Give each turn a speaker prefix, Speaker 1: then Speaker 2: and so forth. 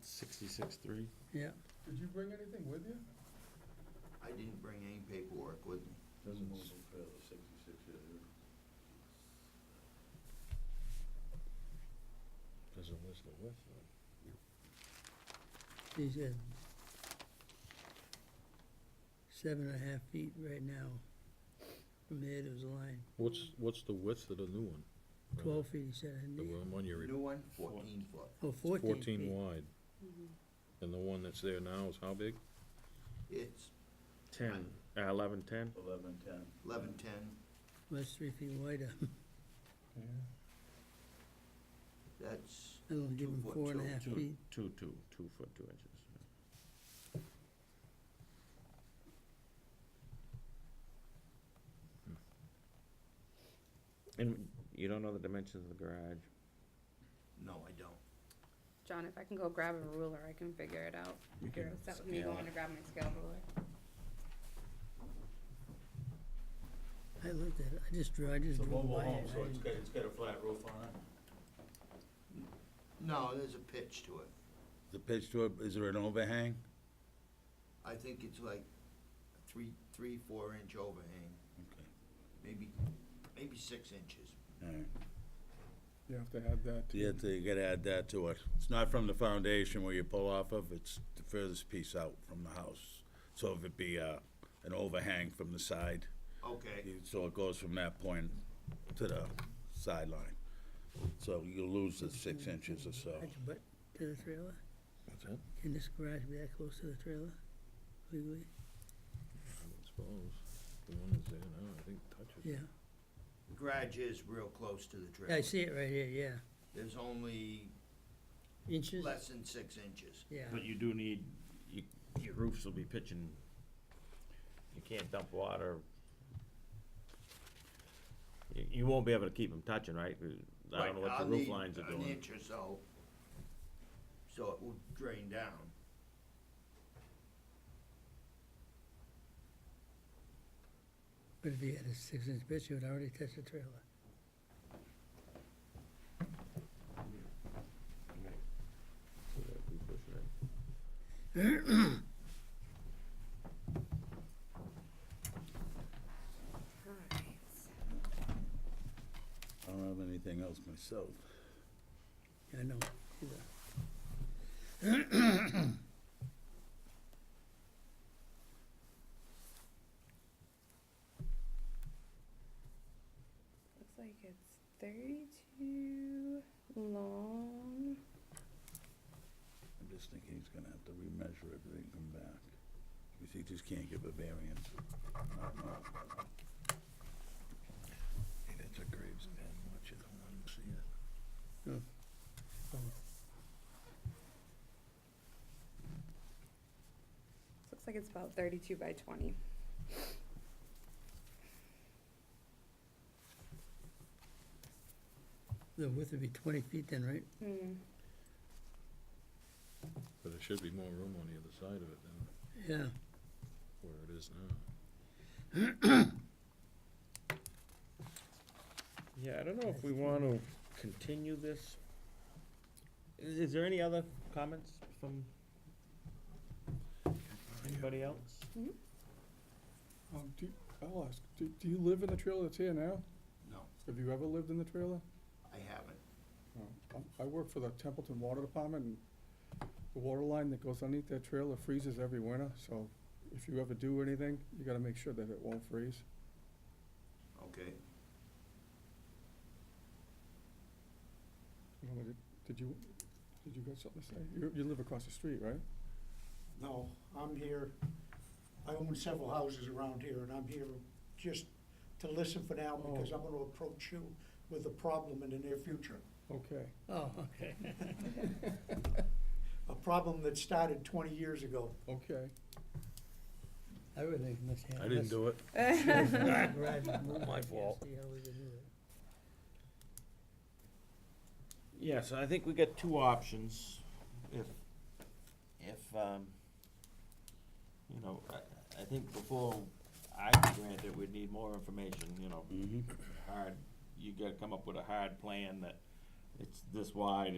Speaker 1: Sixty-six, three.
Speaker 2: yeah.
Speaker 3: Did you bring anything with you?
Speaker 4: I didn't bring any paperwork with me.
Speaker 5: Doesn't hold no credit, sixty-six years. Doesn't list the width, though.
Speaker 2: He's at seven and a half feet right now from the head of the line.
Speaker 6: What's, what's the width of the new one?
Speaker 2: Twelve feet, he said, I
Speaker 6: The
Speaker 2: need.
Speaker 6: one you
Speaker 4: New one, fourteen foot.
Speaker 2: Oh, fourteen feet.
Speaker 6: fourteen wide. And the one that's there now is how big?
Speaker 4: It's
Speaker 1: Ten, uh, eleven, ten?
Speaker 5: Eleven, ten.
Speaker 4: eleven ten,
Speaker 2: Well, That's three feet wider.
Speaker 3: Yeah.
Speaker 4: that's
Speaker 2: That'll give
Speaker 4: Two
Speaker 2: him
Speaker 4: foot,
Speaker 2: four and a
Speaker 4: two-
Speaker 2: half
Speaker 1: Two,
Speaker 2: feet.
Speaker 1: two, two, two foot, two inches. And you don't know the dimensions of the garage?
Speaker 4: No, I don't.
Speaker 7: John, if I can go grab a ruler, I can figure it out.
Speaker 1: You
Speaker 7: You're
Speaker 1: can
Speaker 7: upset with me
Speaker 1: scale
Speaker 7: going
Speaker 1: it.
Speaker 7: to grab my scale ruler.
Speaker 2: I looked at it, I just drew, I just
Speaker 5: It's a
Speaker 2: drew
Speaker 5: mobile
Speaker 2: by
Speaker 5: home,
Speaker 2: it.
Speaker 5: so
Speaker 2: I
Speaker 5: it's
Speaker 2: didn't-
Speaker 5: got, it's got a flat roof on it.
Speaker 4: No, there's a pitch to it.
Speaker 8: The pitch to it, is there an overhang?
Speaker 4: I think it's like three, three, four inch overhang,
Speaker 8: Okay,
Speaker 4: maybe, maybe six inches.
Speaker 8: all right.
Speaker 3: You have to add that. to-
Speaker 8: You have to, you gotta add that to it. It's not from the foundation where you pull off of, it's the furthest piece out from the house. So if it be, uh, an overhang from the side,
Speaker 4: Okay,
Speaker 8: you- so it goes from that point to the sideline. So you lose the six inches or so.
Speaker 2: That's butt to the trailer.
Speaker 6: What's that?
Speaker 2: Can this garage be that close to the trailer legally?
Speaker 6: I don't suppose. The one that's there now, I think touches. it.
Speaker 2: Yeah.
Speaker 4: garage is real close to the
Speaker 2: Yeah, I
Speaker 4: trailer.
Speaker 2: see it right here, yeah.
Speaker 4: There's only
Speaker 2: Inches?
Speaker 4: less than six inches.
Speaker 2: Yeah.
Speaker 1: But you do need, you, your roofs will be pitching, you can't dump water. You, you won't be able to keep them touching, right? I don't know
Speaker 4: Right,
Speaker 1: what the
Speaker 4: I'll
Speaker 1: roof
Speaker 4: need
Speaker 1: lines are
Speaker 4: An
Speaker 1: doing.
Speaker 4: inch or so, so it will drain down.
Speaker 2: But if he had a six-inch pitch, he would already touch the trailer.
Speaker 1: So that'd be pushing it.
Speaker 7: Alright.
Speaker 8: I don't have anything else myself.
Speaker 2: I know.
Speaker 7: Looks like it's thirty-two long.
Speaker 8: I'm just thinking he's gonna have to remeasure it and come back. Because he just can't give a variance.
Speaker 5: It's a Graves den, watch it, I want to see it.
Speaker 7: Looks like it's about thirty-two by twenty.
Speaker 2: The width would be twenty feet then, right?
Speaker 7: Hmm.
Speaker 6: But there should be more room on the other side of it than
Speaker 2: Yeah.
Speaker 6: where it is now.
Speaker 1: Yeah, I don't know if we want to continue this. I- Is there any other comments from anybody else?
Speaker 3: Um, do, you- I'll ask, do, do you live in the trailer that's here now?
Speaker 4: No,
Speaker 3: Have you ever lived in the trailer?
Speaker 4: I haven't.
Speaker 3: No. I'm- I work for the Templeton Water Department, and the water line that goes underneath that trailer freezes every winter, so if you ever do anything, you gotta make sure that it won't freeze.
Speaker 4: Okay,
Speaker 3: You know, did- Did you, did you got something to say? You, you live across the street, right?
Speaker 9: No, I'm here, I own several houses around here, and I'm here just to listen for now, because I'm gonna approach you with a problem in the near future.
Speaker 3: Okay.
Speaker 2: Oh, okay.
Speaker 9: A problem that started twenty years ago.
Speaker 3: Okay.
Speaker 2: I really think must have.
Speaker 6: I didn't do it.
Speaker 2: My
Speaker 1: fault. Yeah, so I think we got two options. If, if, um, you know, I, I think before I can grant it, we'd need more information, you know,
Speaker 8: Mm-hmm.
Speaker 1: hard, you gotta come up with a hard plan that it's this wide,